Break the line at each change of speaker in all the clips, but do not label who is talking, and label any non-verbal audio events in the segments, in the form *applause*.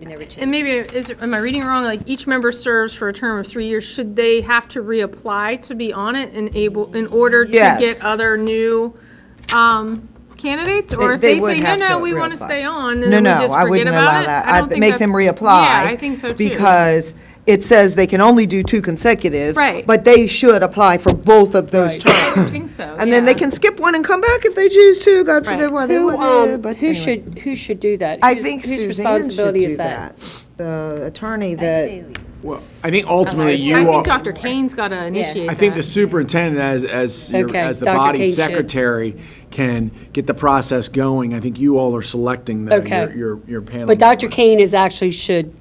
We never changed.
And maybe, is, am I reading wrong? Like, each member serves for a term of three years. Should they have to reapply to be on it and able, in order to get
Yes.
other new um, candidates? Or
They-
if
they
they say,
would
no,
have
no,
to
we want to
reapply.
stay on, and
No,
then we
no,
just
I
forget
wouldn't
about
allow
it?
that.
I don't
I'd
think
make them
that's-
reapply.
Yeah, I think so too.
Because it says they can only do two consecutive.
Right.
But they should apply for both of those
I
terms.
think so,
*laughs* And then they
yeah.
can skip one and come back if they choose to, God
Right.
forbid why they
Who,
would,
um,
but
who
anyway.
should, who should do that?
I
Whose-
think
whose
Suzanne should
responsibility is
do that. The attorney
I'd say
that,
we-
Well, I think ultimately
sorry,
I
you
think
are,
Dr. Kane's got to initiate
I think the
that.
superintendent as, as, your-
Okay,
as the
Dr. Kane
body
should.
secretary can get the process going. I think you all are selecting the,
Okay.
your- your, your panel.
But Dr.
member.
Kane is actually, should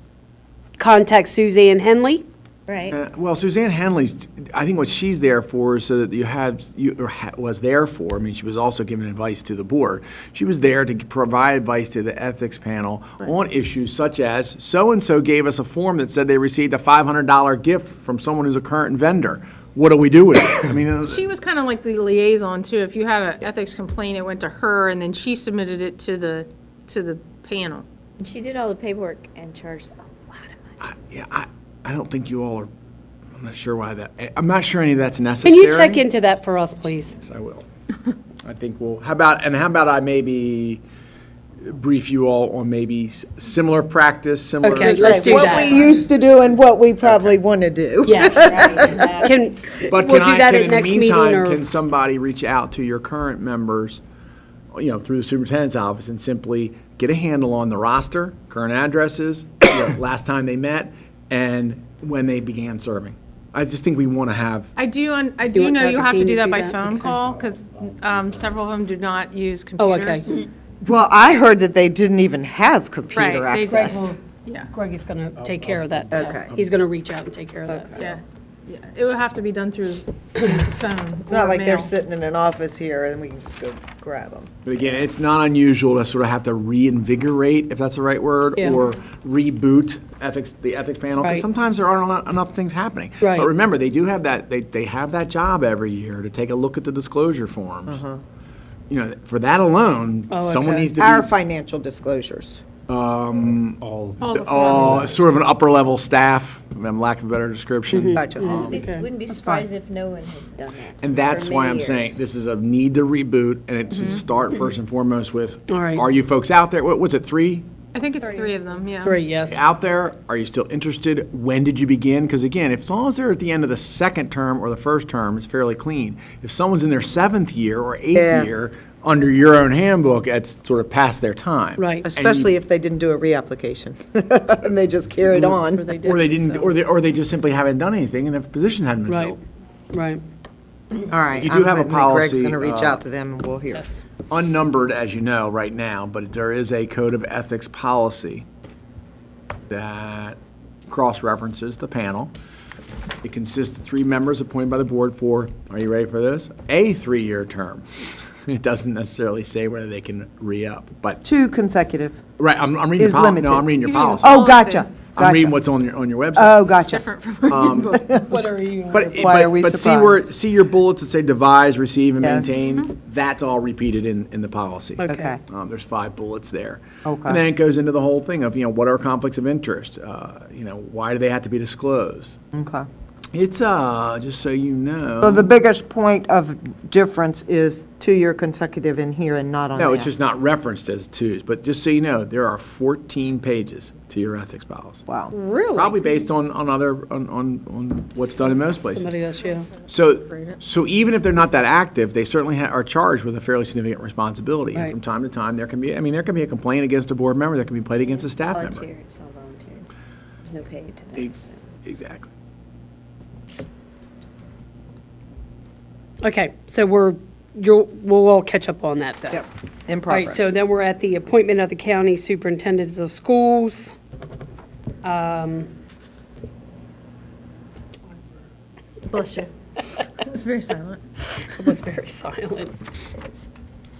contact Suzanne Henley?
Right,
Uh, Well, Suzanne Henley's, I think what she's there for is so that you have, you, or ha- was there for, I mean, she was also giving advice to the board. She was there to provide advice to the ethics panel on issues such as, so-and-so gave us a form that said they received a $500 gift from someone who's a current vendor. What do we do with it? I mean, uh,
She was kind of like the liaison too. If you had an ethics complaint, it went to her, and then she submitted it to the, to the panel.
And she did all the paperwork and charged a lot of money.
yeah, I, I don't think you all are, I'm not sure why that, I- I'm not sure any of that's
Can
necessary.
you check into that for us, please?
Yes, I will. I think we'll, how about, and how about I maybe brief you all on maybe s- similar practice, similar.
Okay, let's do
what we
that.
used to do and what we probably want to do.
Yes. *laughs* Can, we'll
But can
do
I,
that at
can in the
next meeting
meantime,
or?
can somebody reach out to your current members, you know, through the superintendent's office and simply get a handle on the roster, current addresses, *coughs* you know, last time they met, and when they began serving? I just think we want to have,
I do, un- I do
want
know you
Dr.
have to
King
do
to
that
do
by
that?
phone
Okay.
call, because several of them do not use
Oh,
computers.
okay.
Well, I heard that they didn't even have computer
Right, they-
access.
Yeah,
Greg is going to take care of that, so.
Okay.
He's going to reach out and take care of that, so.
yeah, yeah. It would have to be done through *coughs* the phone
It's not
or
like they're
mail.
sitting in an office here and we can just go grab them.
but again, it's not unusual to sort of have to reinvigorate, if that's the right word,
Yeah.
or reboot ethics, the ethics panel,
Right.
because sometimes there aren't enough- enough things happening.
Right.
But remember, they do have that, they, they have that job every year to take a look at the disclosure forms. You know, for that alone,
Uh-huh. Oh,
someone
okay.
needs to be.
Our financial disclosures.
All the forms.
Oh, sort of an upper-level staff, um, lack of a better
Mm-hmm.
description.
Gotcha.
Mm-hmm.
Wouldn't be- Wouldn't be surprised if no one has done that.
And
for
that's why
many
I'm
years.
saying, this is a need to reboot, and it should start first and foremost with,
Mm-hmm. All right.
are you folks out there? What was it, three
I think it's three of them, yeah.
Three, yes.
out there? Are you still interested? When did you begin? Because again, if, as long as they're at the end of the second term or the first term, it's fairly clean. If someone's in their seventh year or
Yeah.
eighth year, under your own handbook, it's sort of past their time.
Right.
Especially if they didn't do a reapplication, *laughs* and they just carried on.
Mm-hmm. Or they didn't, or they, or they just simply haven't done anything, and their position hadn't been
Right,
filled.
right.
All right.
You do
I'm
have a
putting that Greg's
policy,
going to reach
uh,
out to them, and we'll hear.
unnumbered, as you know, right now, but there is a code of ethics policy that cross-references the panel. It consists of three members appointed by the board for, are you ready for this? A three-year term. *laughs* It doesn't necessarily say whether they can re-up, but,
Two consecutive.
right, I'm, I'm reading
Is
your poli,
limited.
no, I'm reading your
He's reading the
policy.
policy.
Oh, gotcha,
I'm reading
gotcha.
what's on your, on your website.
Oh, gotcha.
What are you?
But, it-
Why
but-
are we
but see where,
surprised?
see your bullets that say devise, receive, and
Yes. Mm-hmm.
maintain? That's all repeated in, in the policy.
Okay.
Um, there's five bullets there.
Okay.
And then it goes into the whole thing of, you know, what are conflicts of interest? Uh, you know, why do they have to be disclosed?
Okay.
It's, uh, just so you know.
So the biggest point of difference is two-year consecutive in here and not on there.
No, it's just not referenced as twos, but just so you know, there are 14 pages to your ethics policy.
Wow.
Probably based on, on other, on, on, on what's done in most places.
Somebody else, yeah.
So, so even if they're not that active, they certainly ha- are charged with a fairly significant responsibility. And
Right.
from time to time, there can be, I mean, there can be a complaint against a board member, there can be played against a staff member.
Volunteer, it's all volunteer. There's no pay to
E-
that. so.
Exactly.
Okay, so we're, you'll, we'll all catch up on that, though.
Yep, in
All right,
progress.
so then we're at the appointment of the county superintendents of schools. Um,
Bless you. It was very silent.
*laughs* It was very silent.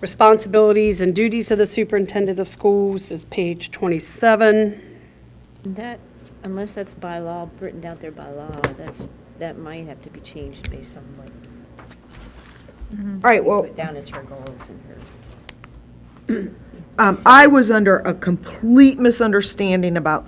Responsibilities and duties of the superintendent of schools is page 27.
That, unless that's by law, written out there by law, that's, that might have to be changed based on what
All right, well,
we put down as her goals and her.
um, I was under a complete misunderstanding about